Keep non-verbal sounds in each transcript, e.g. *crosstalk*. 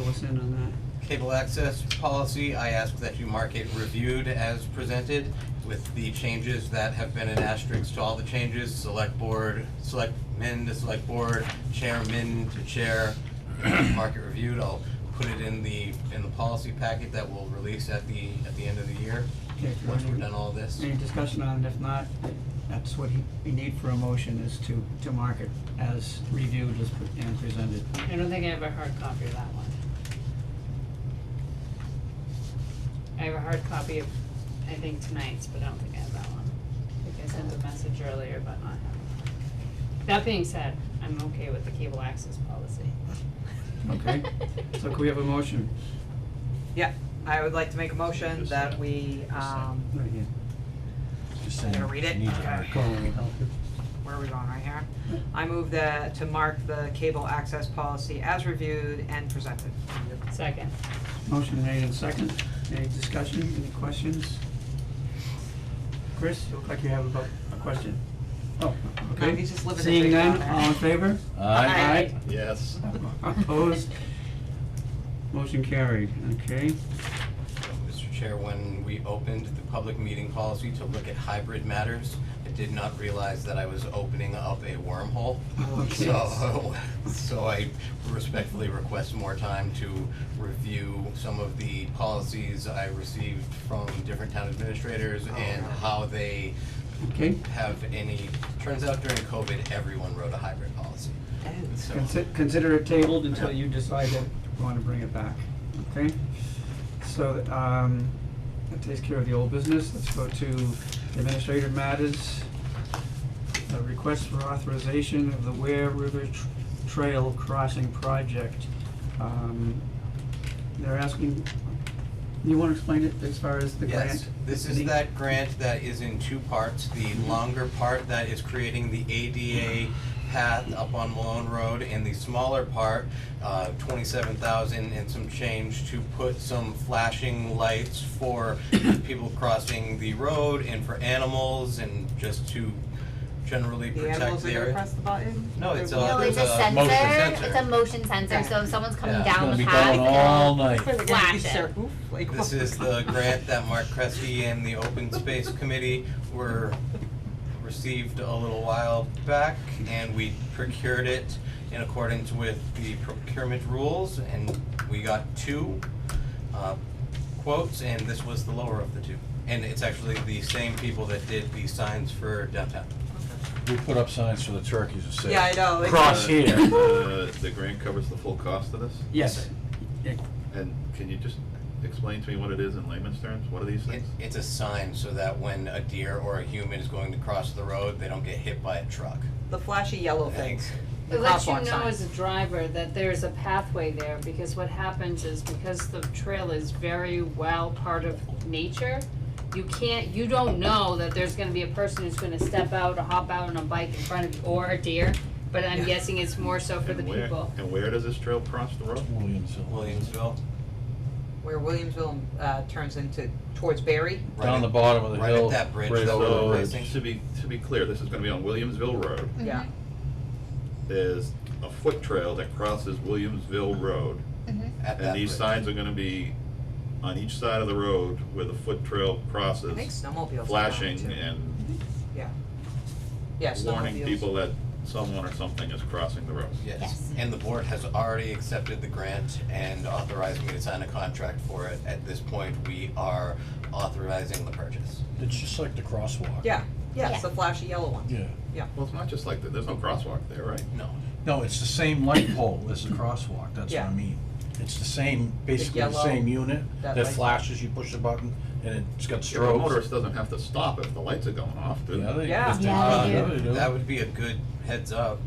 us in on that? Cable access policy, I ask that you mark it reviewed as presented with the changes that have been in asterisks to all the changes, select board, selectmen to select board, chairman to chair, *clears throat* mark it reviewed, I'll put it in the, in the policy packet that we'll release at the, at the end of the year, Okay, once we're any- done all this. Any discussion on it? If not, that's what he- we need for a motion is to, to mark it as reviewed as pre- and presented. I don't think I have a hard copy of that one. I have a hard copy of, I think tonight's, but I don't think I have that one. I think I sent a message earlier, but not have it. That being said, I'm okay with the cable access policy. *laughs* Okay. So can we have a motion? Yeah, I would like to make a motion that we, um, Right here. I'm gonna read it. Where are we going, right here? I move that, to mark the cable access policy as reviewed and presented. Second, Motion made and second. Any discussion, any questions? Chris, you look like you have about a question. Oh, okay. No, he's just living the Seeing dream out none, there. all in favor? Aye. Yes. Opposed? Motion carried, okay. Mr. Chair, when we opened the public meeting policy to look at hybrid matters, I did not realize that I was opening up a wormhole. Okay. *laughs* So, so I respectfully request more time to review some of the policies I received from different town administrators and how they Okay, have any, turns out during COVID, everyone wrote a hybrid policy. So- Consi- Consider it tabled until you decide that you want to bring it back, okay? So, um, that takes care of the old business, let's go to administrative matters. A request for authorization of the Ware River Tr- Trail Crossing Project. Um, They're asking, you want to explain it as far as the grant? Mm-hmm. Yes, this is The- that grant that is in two parts, the longer part that is creating the ADA path up on Malone Road, and the smaller part, uh, twenty-seven thousand and some change to put some flashing lights *coughs* for people crossing the road and for animals and just to generally The protect animals the are area. gonna press the button? No, it's, They're- uh, No, it's a There's a sensor, motion it's a sensor. motion sensor, so if someone's coming Yeah. It's down gonna the be path, going all it'll night. They're *laughs* gonna be Flash it. ser- oof, like, This is the grant that Mark Kresge and the Open Space Committee were, received a little while back, and we procured it in accordance with the procurement rules, and we got two uh, quotes, and this was the lower of the two. And it's actually the same people that did the signs for downtown. We put up signs for the turkeys to say. Yeah, I know, like- Cross here. The the grant covers the full cost of this? Yes. And can you just explain to me what it is in layman's terms? What are these It- things? It's a sign so that when a deer or a human is going to cross the road, they don't get hit by a truck. The flashy yellow Thanks. things. it The lets top you one know sign. as a driver that there's a pathway there, because what happens is because the trail is very well part of nature, you can't, you don't know that there's gonna be a person who's gonna step out or hop out on a bike in front of you, or a deer, but I'm guessing it's more so for the And where- people. And where does this trail cross the road? Williamsville. Williamsville, Where Williamsville, uh, turns into, towards Barry. right Down at- the bottom of the right hill. at that bridge right that over the we're So, bridge. replacing. to be, to be clear, this is gonna be on Williamsville Road. Yeah. Mm-hmm. There's a foot trail that crosses Williamsville Road. at that And these bridge. signs are gonna be on each side of the road where the foot trail I think crosses, snowmobiles. are down flashing too. and Yeah. Yeah, snowmobiles. warning people that someone or something is crossing the road. Yes, Yes. and the board has already accepted the grant and authorized me to sign a contract for it. At this point, we are authorizing the purchase. It's just like the crosswalk. Yeah, yeah, it's Yeah. the flashy yellow one. Yeah. Well, it's not just like that, there's no crosswalk there, right? No, No, it's the same light pole as the crosswalk, that's what Yeah. I mean. It's the same, basically the yellow- same unit that that light. flashes, you push the button and it's got Yeah, but a strobes. motorist doesn't have to stop if the lights are going off, do they? Yeah, they- Yeah. Yeah, they Yeah, do. they do. Uh, that would be a good heads up,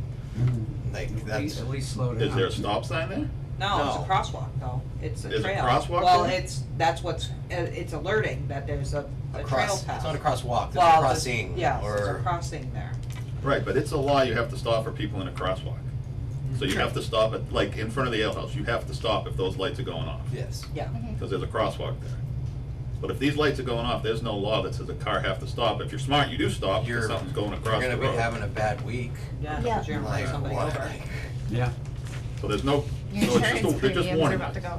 like, At least- that's, at least slow down. Is there a stop sign there? No, it's No. a crosswalk though. It's a Is it trail. crosswalk Well, there? it's, that's what's, uh, it's alerting that there's a, a a trail cross, it's path. not a crosswalk, there's a Well, the- crossing, yes, there's a or, crossing there. Right, but it's a law, you have to stop for people in a crosswalk. So you have to stop at, like, in front of the ale house, you have to stop if those lights are going off, yes. Yeah. because there's a crosswalk there. But if these lights are going off, there's no law that says a car have to stop. If you're smart, you do stop, You're- because something's going You're across the gonna be road. having a bad week, Yeah, Yeah. because you're gonna run like, *laughs* somebody what- over. Yeah. So there's no, so Your it's just, insurance a- they're just premiums are warning about to lights. go